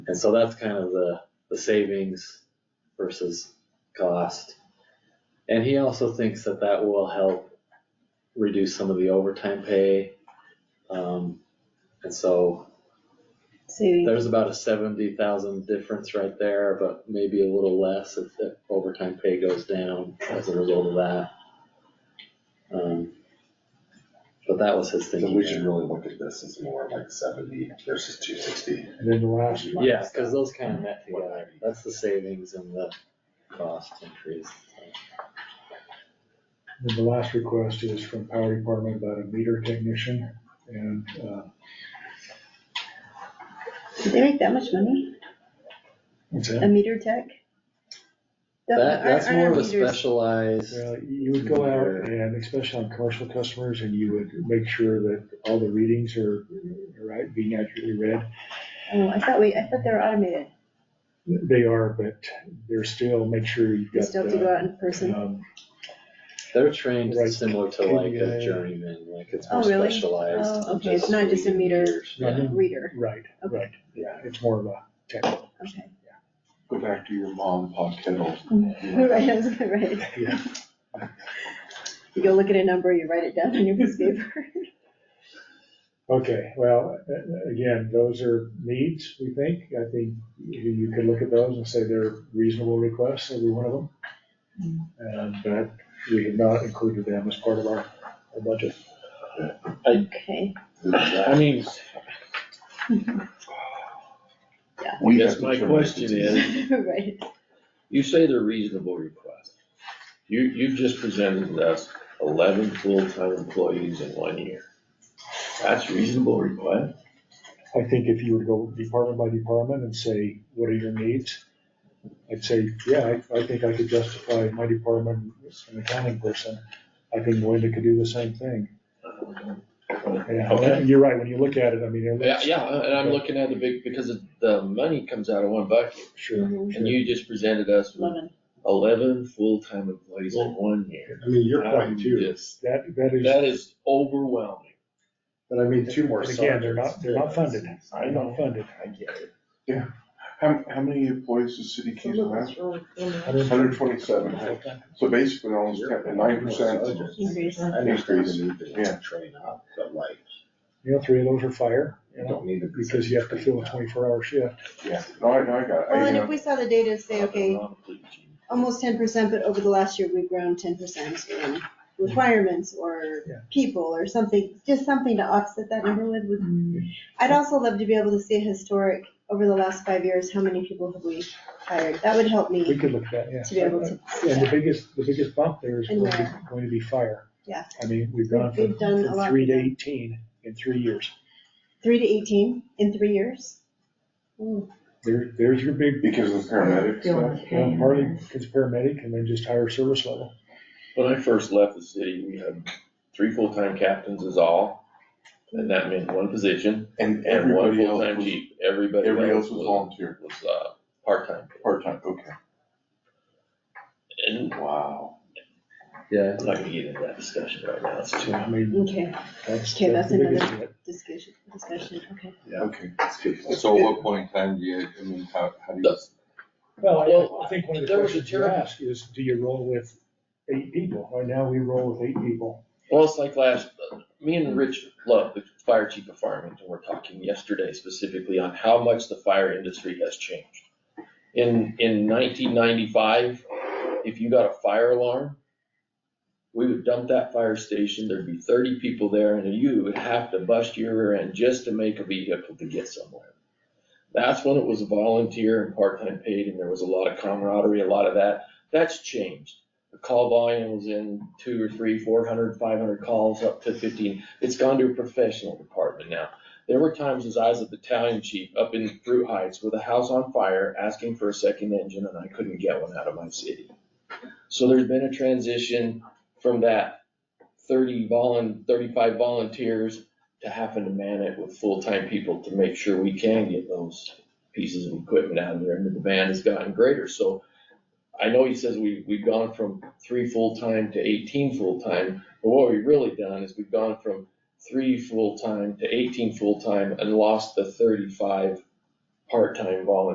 And so that's kind of the, the savings versus cost. And he also thinks that that will help reduce some of the overtime pay. Um, and so So there's about a seventy thousand difference right there, but maybe a little less if the overtime pay goes down as a result of that. Um, but that was his So thinking we should there. really look at this as more like seventy versus two sixty. And then the last one. Yeah, cause those kind of net together, that's the savings and the cost increase. And the last request is from power department about a meter technician and, uh, did they make that much money? what's A that? meter tech? That, that's Aren't- aren't more our of a meters- specialized, Well, you would go out and especially on commercial customers and you would make sure that all the readings are, are right, being accurately read. Oh, I thought we, I thought they were automated. They are, but they're still, make sure you've got. You still have to go uh, out in person. um, they're trained Right. similar to like a KVA. journeyman, like it's Oh, more really? specialized. Oh, than okay, it's not just a reading meter. meters. Yeah. Yeah. Reader, Right, Okay. right, yeah, it's more of a technical. okay. Go back to your mom, Pop Kettle. Right, I was gonna write it. Yeah. You go look at a number, you write it down on your piece of paper. Okay, well, a- again, those are needs, we think. I think you- you could look at those and say they're reasonable requests, every one of them. Um, But we have not included them as part of our our budget. Okay, I mean, We Yes, have to my turn question this into- is- right. you say they're reasonable requests. You, you just presented us eleven full-time employees in one year. That's reasonable request? I think if you were to go department by department and say, what are your needs? I'd say, yeah, I, I think I could justify my department as an accounting person. I think Linda could do the same thing. Yeah, Okay. You're right, when you look at it, I mean, it Uh, Yeah, looks. yeah, and I'm looking at the big, because the money comes out of one bucket, Sure. and you just presented us with Lemon. eleven full-time employees in one year. I mean, your I'm point too, just- That, that is. That is overwhelming. but I mean, two more And subjects. Again, they're not, they're not yeah. funded, they're not funded. I get it. How, how many employees does City Council have? Hundred twenty-seven. So basically almost nine percent. Increase. I understand Increase. the need to Yeah. train up, but like, You know, three of those are fire, you you know, don't need to. be- because you have to fill a twenty-four hour shift. Yeah, no, I, no, I got it. Well, I, and uh, if we saw the data, say, okay, almost ten percent, but over the last year, we've grown ten percent in requirements or Yeah. people or something, just something to offset that number with, Mm-hmm. would- I'd also love to be able to see a historic, over the last five years, how many people have we hired? That would help We me could look at that, yeah. to be able to. And the biggest, the biggest bump there is And going to, where? be- going to be fire. Yeah. I mean, we've gone We've- from we've done a from lot three to with that. eighteen in three years. Three to eighteen in three years? Ooh, There, there's your big, because of the paramedics, uh, you know, partly it's paramedic and then just higher service level. When I first left the city, we had three full-time captains is all, and that meant one position, and and one everybody else full-time was chief, everybody else was. Everybody else was volunteer, was, uh, part-time. part-time, okay, And wow. Yeah, I'm not gonna get into that discussion right now, it's too. I mean, Okay, that's, Okay, that's the that's biggest. another- discussion, discussion, okay. Yeah. Okay. So at what point in time do you, I mean, how, how do you? Well, Well, I- I think one of the there was a questions you terrible- ask is, do you roll with eight people? Right now, we roll with eight people. Well, it's like last, me and Rich Love, the fire chief of Farmington, were talking yesterday specifically on how much the fire industry has changed. In, in nineteen ninety-five, if you got a fire alarm, we would dump that fire station, there'd be thirty people there, and you would have to bust your rear end just to make a vehicle to get somewhere. That's when it was volunteer and part-time paid, and there was a lot of camaraderie, a lot of that. That's changed. The call volume was in two or three, four hundred, five hundred calls up to fifteen. It's gone to a professional department now. There were times as I was a battalion chief up in Fruit Heights with a house on fire, asking for a second engine, and I couldn't get one out of my city. So there's been a transition from that thirty volun, thirty-five volunteers to having to man it with full-time people to make sure we can get those pieces of equipment out of there, and the demand has gotten greater, so I know he says we, we've gone from three full-time to eighteen full-time, but what we've really done is we've gone from three full-time to eighteen full-time and lost the thirty-five part-time volunteer